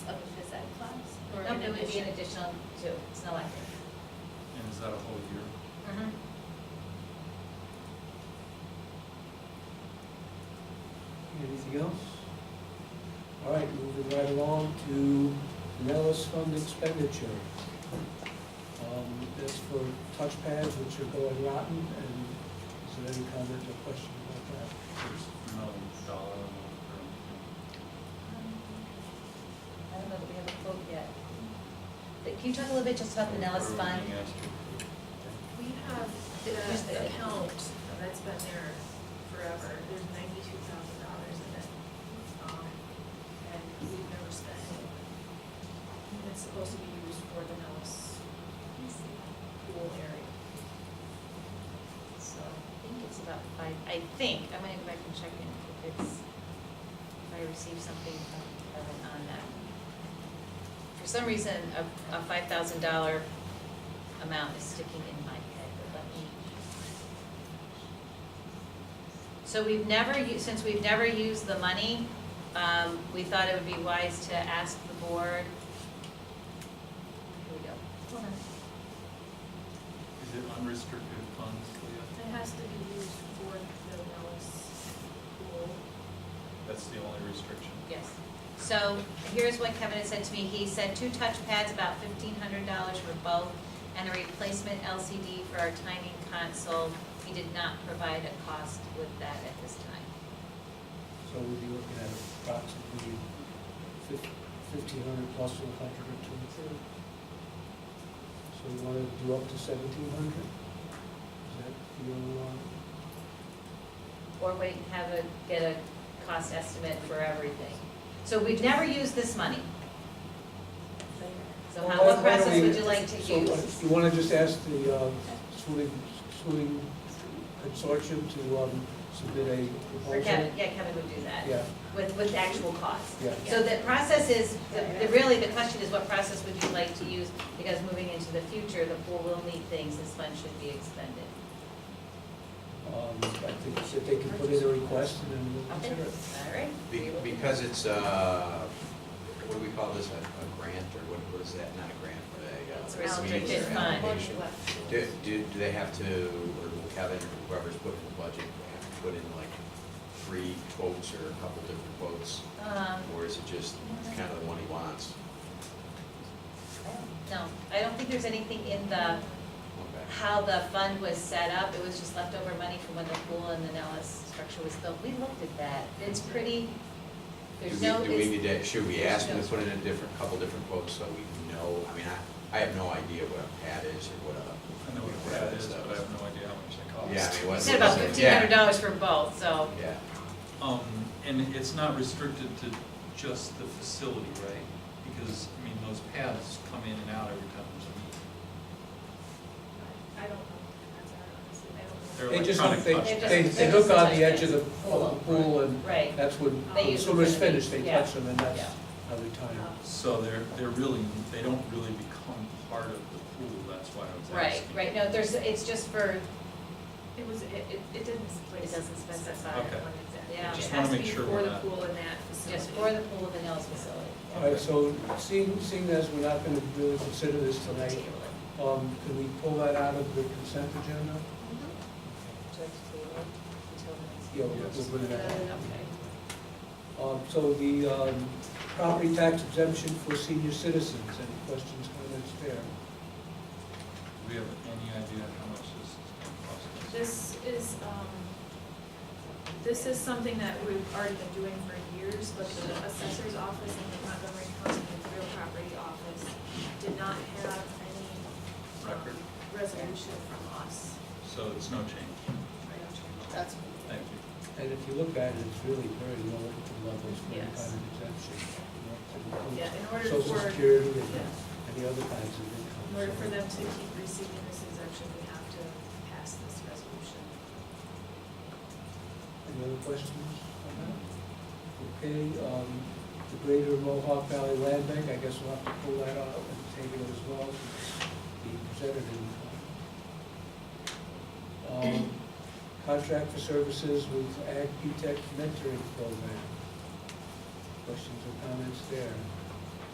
an It would be an addition. additional two, it's an elective. And is that a whole year? Mm-hmm. Anything else? All right, moving right along to Nellis Fund expenditure. Um, That's for touchpads which are going rotten, and is there any comment or question about that? There's no dollar amount or anything. I don't know that we have a quote yet. But Can you talk a little bit just about the Nellis Or Fund? being asked to- We have Just the the- account that's been there forever, there's ninety-two thousand dollars in it. um, And we've never spent it. And It's supposed to be used for the Nellis pool area. So I think it's about five, I think, I'm gonna go back and check in if it's, if I receive something from Kevin on that. For some reason, a, a five thousand dollar amount is sticking in my head, but let me. So we've never, u- since we've never used the money, um, we thought it would be wise to ask the board. Here we go. Hold on. Is it unrestricted funds, Leah? It has to be used for the Nellis pool. That's the only restriction. Yes. So here's what Kevin had said to me. He said two touchpads, about fifteen hundred dollars for both, and a replacement LCD for our timing console. He did not provide a cost with that at this time. So we'll be looking at approximately fifteen hundred plus a hundred or two. So we want to do up to seventeen hundred? Is that your, uh, Or wait, and have a, get a cost estimate for everything. So we've never used this money. So how, Why what don't process we- would you like to so use? what- You want to just ask the uh, schooling, schooling consortium to um, submit a Or proposal? Kevin, yeah, Kevin would do that. Yeah, with, with actual cost. Yeah. So the process is, the- the- really, the question is what process would you like to use? Because moving into the future, the pool will need things, this fund should be expended. um, I think that they can put in a request and then we'll Okay, consider it. all right. Be- Because it's, uh, what do we call this, a a grant, or what what is that, not a grant, but a. uh, It's means restricted or fund. allocation. Do, do, do they have to, or will Kevin, or whoever's putting the budget, they have to put in like three quotes or a couple different quotes? Um, Or is it just kind of the one he wants? No, I don't think there's anything in the, Okay. how the fund was set up. It was just leftover money from when the pool and the Nellis structure was built. We looked at that. It's pretty, Do there's we- no, Do we it's, need to, should we ask him to put in a different, couple different quotes so we know? I mean, I, I have no idea what a pad is or what a, I know what that is, but I have no idea how much it costs. yeah, I mean, what. we said about what is it? fifteen hundred dollars for both, so. Yeah, yeah. Um, and it's not restricted to just the facility, right? Because, I mean, those paths come in and out every time there's a meeting. I don't know, that's honestly, I don't know. They're They just, electronic they, touch They're just- they, they're they just hook on touch the edge of the, pads. of the pool and Right. that's when, They as use soon as it for the- finished, they yeah. touch them and that's Yeah. how they time it. So they're, they're really, they don't really become part of the pool, that's why I was Right, asking. right, no, there's, it's just for, It was, it, it it didn't specify. It doesn't specify. when Okay. exactly. Yeah. Just It wanna has to make be sure for we're the not- pool in that facility. just for the pool of the Nels facility. All right, so seeing, seeing as we're not going to really consider this tonight, Table um, can we pull that out of the consent agenda? it. Just table it until the next- Yeah, we'll- we'll bring that up. Okay. Um, So the um, property tax exemption for senior citizens, any questions, comments there? Do we have any idea how much this is gonna cost us? This is, um, this is something that we've already been doing for years, but the assessor's office and the Montgomery County Real Property Office did not have any. um, Record. Resolution from us. So it's no change, That's. thank you. And if you look at it, it's really very low at the levels for any Yes. kind of exemption. you know, Yeah, to in include order Social for- security and Yeah. any other kinds of In income. order for them to keep receiving this exemption, we have to pass this resolution. Any other questions on that? Okay, um, the Greater Mohawk Valley Land Bank, I guess we'll have to pull that out and table it as well, since it's being presented in. Um, Contract for services with Ag Tech Mentoring Program. Questions or comments there?